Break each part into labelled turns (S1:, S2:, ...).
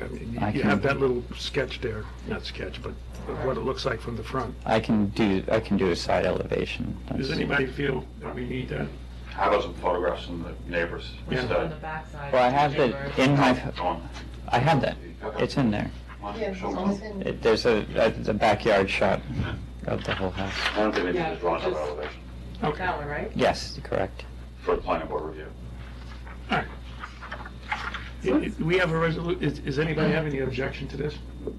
S1: I mean,
S2: I
S1: you- you
S2: can-
S1: have that little sketch there, not sketch, but of what it looks like from the front.
S2: I can do, I can do a side elevation.
S1: Does
S2: That's-
S1: anybody feel that we need that?
S3: How about some photographs from the neighbors
S1: Yeah.
S3: instead?
S2: Well, I have that in my,
S3: Go on.
S2: I have that. It's in there.
S3: Come on,
S4: Yeah,
S3: show
S4: it's
S3: 'em.
S4: always been-
S2: It- There's a, a the backyard shot of the whole house.
S3: I don't think they need
S4: Yeah,
S3: to draw another
S4: just-
S3: elevation
S1: Okay,
S4: That
S1: all
S4: one, right?
S2: Yes, correct.
S3: for the planning board review.
S1: right. I- I- Do we have a resolu, is, is anybody have any objection to this?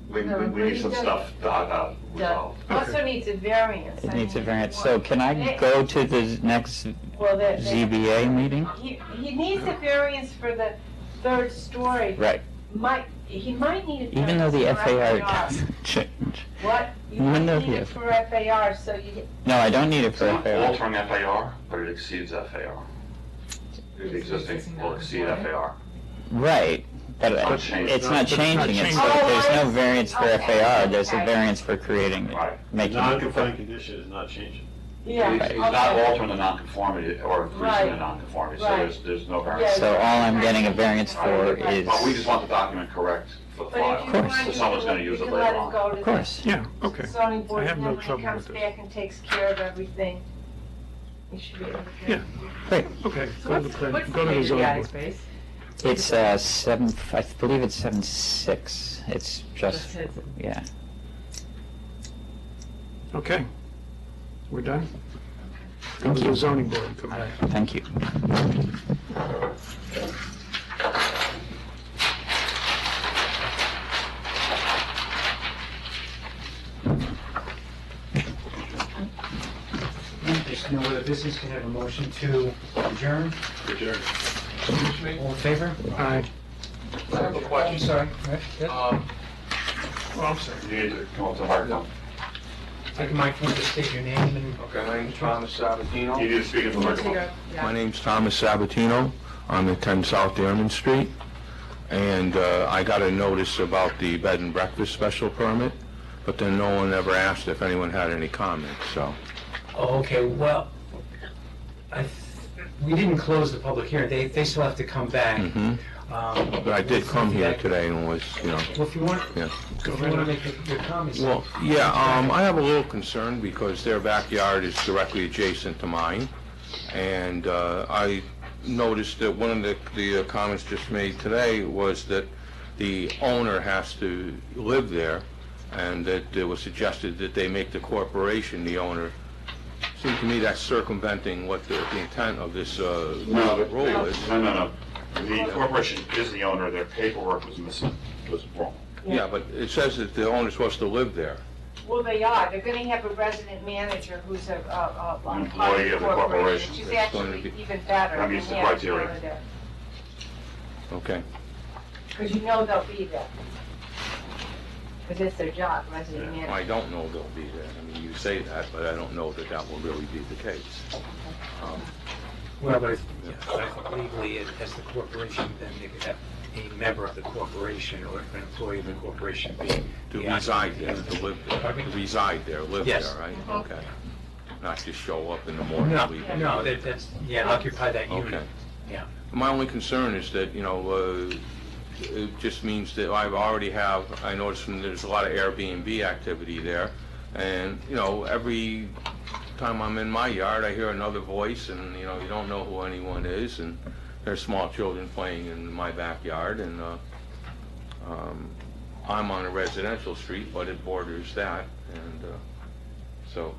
S3: We,
S4: No,
S3: we, we
S4: we
S3: need some
S4: don't-
S3: stuff to, uh, resolved.
S5: Also needs a variance.
S2: It
S5: I
S2: needs a
S5: mean,
S2: variance.
S5: what-
S2: So can I go to the next
S5: Well, the- the-
S2: ZBA meeting?
S5: He, he needs a variance for the third story.
S2: Right,
S5: Might, he might need a variance.
S2: even though the
S5: for
S2: FAR doesn't change.
S5: What? You
S2: Even though
S5: need
S2: the
S5: it
S2: F-
S5: for FAR, so you,
S2: No, I don't need it for
S3: It's not
S2: FAR.
S3: altering FAR, but it exceeds FAR. The existing will exceed FAR.
S2: Right, but
S3: not changing.
S2: it's not changing it, so
S5: Oh,
S2: there's
S5: I
S2: no
S5: see.
S2: variance for
S5: Okay,
S2: FAR, there's a
S5: okay.
S2: variance for creating it,
S3: Right.
S2: making it.
S6: Non-conforming condition is not changing.
S5: yeah.
S3: He's he's
S5: okay.
S3: not altering the nonconformity or increasing the
S5: Right.
S3: nonconformity, so
S5: Right.
S3: there's, there's no
S5: Yeah.
S3: variance.
S2: So all I'm getting a variance for
S5: Right, right.
S2: is,
S3: But we just want the document correct for the
S5: But if
S3: file,
S5: you
S2: Of course.
S5: want,
S3: so
S5: you
S3: someone's
S5: can,
S3: gonna
S5: you
S3: use it
S5: can
S3: later
S5: let him
S3: on.
S5: go to
S2: of
S5: the
S2: course.
S1: Yeah, okay.
S5: zoning board.
S1: I have
S5: and
S1: no
S5: then when
S1: trouble
S5: he comes
S1: with this.
S5: back and takes care of everything, he should be able to.
S1: Yeah.
S2: great,
S1: Okay,
S4: So
S1: go to
S4: what's,
S1: the plan,
S4: what's the
S1: go to the
S4: major
S1: zoning
S4: attic
S1: board.
S4: space?
S2: it's uh, seven, I believe it's seven six, it's just,
S4: Just his.
S2: yeah.
S1: Okay, we're done? Go to
S2: Thank
S1: the
S2: you.
S1: zoning board and come
S2: All right,
S1: back.
S2: Thank you.
S7: There's no other business, can I have a motion to adjourn?
S6: Adjourned.
S7: All in favor?
S1: Aye.
S3: I have a
S7: I'm sorry. Right, yep.
S8: Um,
S1: Oh, I'm sorry.
S3: You need to come up to the microphone.
S7: Take a microphone, just state your name and...
S8: Okay, my name's Thomas Sabatino.
S3: You need to speak into the microphone.
S8: My name's Thomas Sabatino. I'm at 10 South Airman Street. And uh, I got a notice about the bed and breakfast special permit, but then no one ever asked if anyone had any comments, so.
S7: Oh, okay, well, I, th- we didn't close the public hearing, they, they still have to come back.
S8: mhm.
S7: Um,
S8: But I did come here
S7: Okay.
S8: today and was, you know,
S7: Well, if you want,
S8: Yeah.
S7: if you want to make your- your comments.
S8: Well, yeah, um, I have a little concern because their backyard is directly adjacent to mine. And, uh, I noticed that one of the, the uh, comments just made today was that the owner has to live there and that it was suggested that they make the corporation the owner. Seems to me that's circumventing what the the intent of this, uh,
S3: No, but-
S8: rule is.
S3: No, no, no. The corporation is the owner, their paperwork was missing, was wrong.
S8: Yeah, but it says that the owner's supposed to live there.
S5: Well, they are. They're going to have a resident manager who's a, a, a. a
S3: Employee of the corporation.
S5: Which is
S8: It's going
S5: actually
S8: to be-
S5: even better.
S3: That meets
S5: than
S3: the
S5: having
S3: criteria.
S5: someone there,
S8: Okay.
S5: Because you know they'll be there. Because it's their job, resident
S8: Yeah,
S5: manager.
S8: I don't know they'll be there. I mean, you say that, but I don't know that that will really be the case. Um,
S7: Well, but, yeah, I think legally, as- as the corporation, then they could have a member of the corporation or an employee of the corporation be...
S8: To
S7: Yeah.
S8: reside there, to live there, to reside there, live
S7: Yes.
S8: there, right? Okay. Not just show up in the morning,
S7: No,
S8: and leave.
S7: no, that- that's, yeah, occupy that
S8: Okay.
S7: unit. Yeah.
S8: My only concern is that, you know, uh, it just means that I already have, I noticed from there's a lot of Airbnb activity there, and, you know, every time I'm in my yard, I hear another voice, and, you know, you don't know who anyone is, and there's small children playing in my backyard, and uh, um, I'm on a residential street, but it borders that, and uh, so,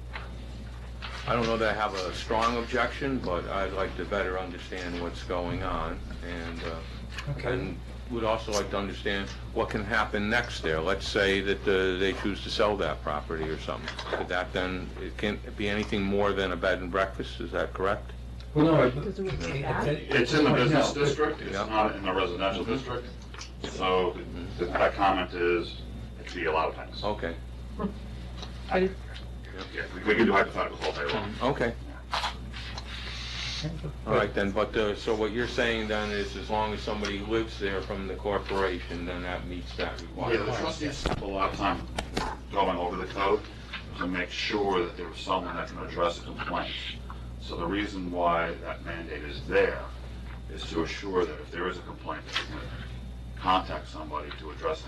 S8: I don't know that I have a strong objection, but I'd like to better understand what's going on, and, uh,
S7: Okay.
S8: and would also like to understand what can happen next there. Let's say that uh, they choose to sell that property or something. Could that then, it can it be anything more than a bed and breakfast, is that correct?
S7: Well, no, it-
S4: Does it work
S7: it-
S4: back?
S7: it-
S3: It's in the
S7: no,
S3: business
S7: but-
S3: district, it's
S8: Yeah.
S3: not in the residential district, so th- that comment is, it could be a lot of things.
S8: Okay,
S3: Yeah, we- We can do hypotheticals all day long.
S8: okay, all right then, but, uh, so what you're saying then is as long as somebody lives there from the corporation, then that meets that
S3: Yeah, the
S8: requirement.
S3: trustees spent a lot of time going over the code to make sure that there was someone that can address complaints. So the reason why that mandate is there is to assure that if there is a complaint, that we can contact somebody to address